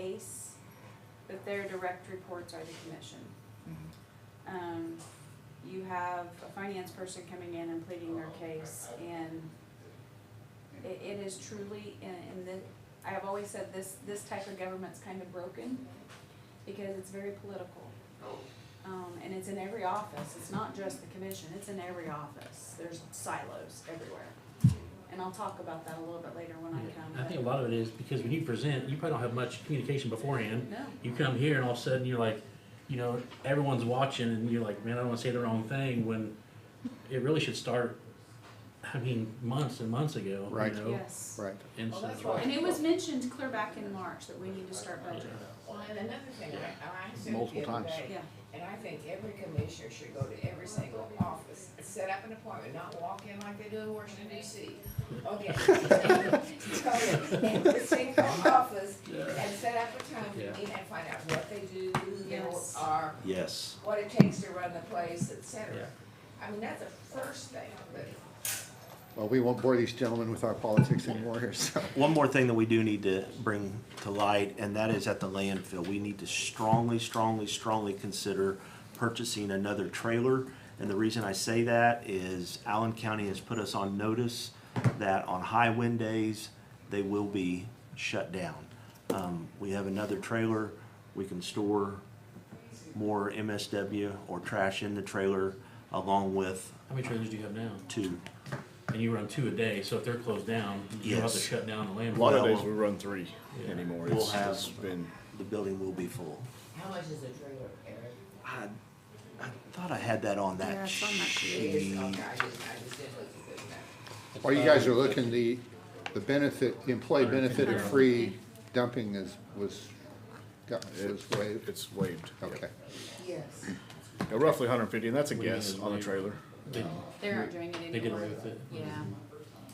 case, but their direct reports are the commission. Um, you have a finance person coming in and pleading their case and it, it is truly, in in the, I have always said this, this type of government's kind of broken because it's very political. Um, and it's in every office, it's not just the commission, it's in every office, there's silos everywhere. And I'll talk about that a little bit later when I come. um, I think a lot of it is because when you present, you probably don't have much communication beforehand. No, You come here and all of a sudden you're like, you know, everyone's watching and you're like, man, I don't want to say the wrong thing when it really should start, I mean, months and months ago. you Right. know? yes. Right. And Well, so- that's why- And it was mentioned clear back in March that we need to start budgeting. Well, and another thing, I, I said Multiple the other times. day, Yeah. and I think every commissioner should go to every single office, set up an appointment, not walk in like they do in Washington DC. Okay. Go to Every single office and set up a time to Yeah. meet and find out what they do, who they Yes. are, Yes. what it takes to run the place, et Yeah. cetera. I mean, that's the first thing, but Well, we won't bore these gentlemen with our politics anymore here, so. One more thing that we do need to bring to light, and that is at the landfill. We need to strongly, strongly, strongly consider purchasing another trailer. And the reason I say that is Allen County has put us on notice that on high wind days, they will be shut down. Um, we have another trailer. We can store more MSW or trash in the trailer along with How many trailers do you have now? two. And you run two a day, so if they're closed down, you'll have to Yes. shut down the A lot landfill. of Well- days we run three anymore. We'll It's have- it's been, The building will be full. How much is a trailer, Eric? I, I thought I had that on that Yeah, it's on that it is, sheet. okay, I just, I just didn't look at this now. Or you guys are looking, the, the benefit, the employee benefit of free dumping is, was, got, was waived. it's waived. yeah. Okay. Yes. Yeah, Roughly hundred and fifty, and that's a What do you mean guess it's on a waived? trailer. They They aren't doing it anymore. they get away with it. Yeah,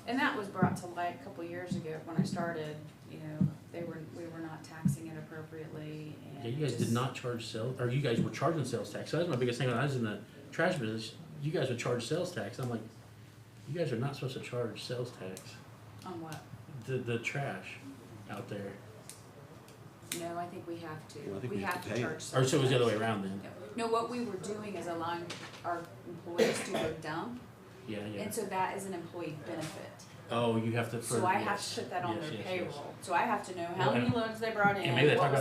and that was brought to light a couple years ago when I started, you know, they were, we were not taxing it appropriately and. Yeah, you guys did just- not charge sales, or you guys were charging sales tax. So that's my biggest thing when I was in the trash business. You guys would charge sales tax. I'm like, you guys are not supposed to charge sales tax. On what? The the trash out there. No, I think we have Well, I to, think we we have have to to pay it. charge Or so it was the other way surcharge. around then. Yeah. No, what we were doing is allowing our employees to go dump, Yeah, yeah. and so that is an employee benefit. Oh, you have to. So for- I have yes, to put that on yes, their yes, yes. payroll, so I have to know how Well, many and- loads they brought in, And maybe they what talked was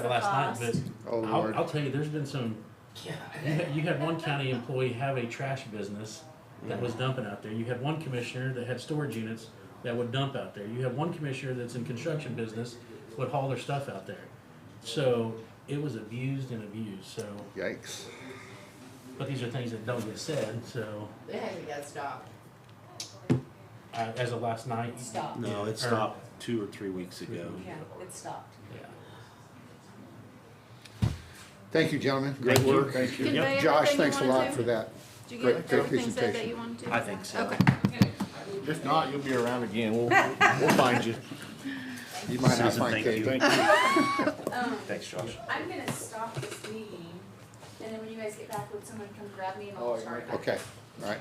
the about that last cost. night, Oh, but I'll, Lord. I'll tell you, there's been some. You had, you had one county employee have a trash business that was dumping out there. You had one commissioner that had storage units that would dump out there. You had one commissioner that's in construction business would haul their stuff out there. So it was abused and abused. So, Yikes. but these are things that don't get said. So They haven't got stopped. uh, as of last night, Stop. No, it Or- stopped two or three weeks ago. Yeah, it stopped. Yeah. Thank you, gentlemen. Great Thank you. work. Thank you. Convey Josh, everything you thanks a wanna lot say? for that. Did you Great- get great everything said that presentation. you wanted to? I think so. Okay. If not, you'll be around again. We'll, we'll find you. You might not Susan, find thank you. Katie. Thank you. Thanks, Josh. I'm gonna stop this meeting, and then when you guys get back, would someone come grab me and Oh, I'll start? Okay, all right.